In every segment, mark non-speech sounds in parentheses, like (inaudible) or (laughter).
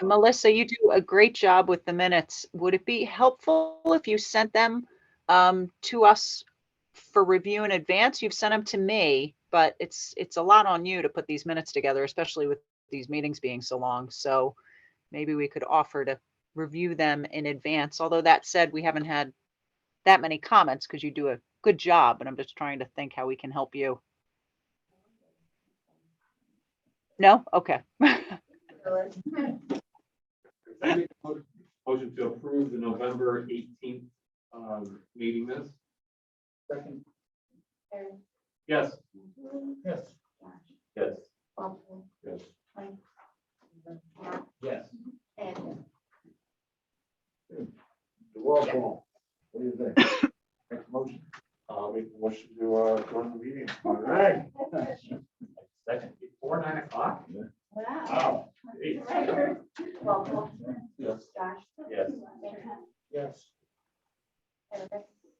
And Melissa, you do a great job with the minutes. Would it be helpful if you sent them um, to us for review in advance? You've sent them to me, but it's, it's a lot on you to put these minutes together, especially with these meetings being so long. So maybe we could offer to review them in advance. Although that said, we haven't had that many comments because you do a good job, and I'm just trying to think how we can help you. No? Okay. I make a mo- Motion to approve the November eighteenth um, meeting minutes. Second. Yes. Yes. Yes. And Yes. Yes. The roll call. What do you think? (coughs) Make a motion. I'll make a motion to uh, adjourn the meeting. All right. Second, before nine o'clock? Wow. Wow. Eight. Well, Yes. Josh. Yes. Yes.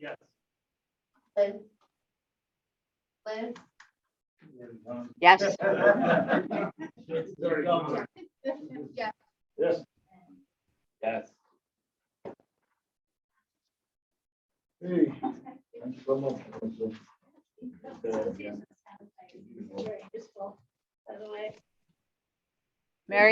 Yes. Liz. Liz. (laughs) Yes. Yes. Yes. Yes. Hey, thanks so much. Melissa. Useful, by the way. Mary?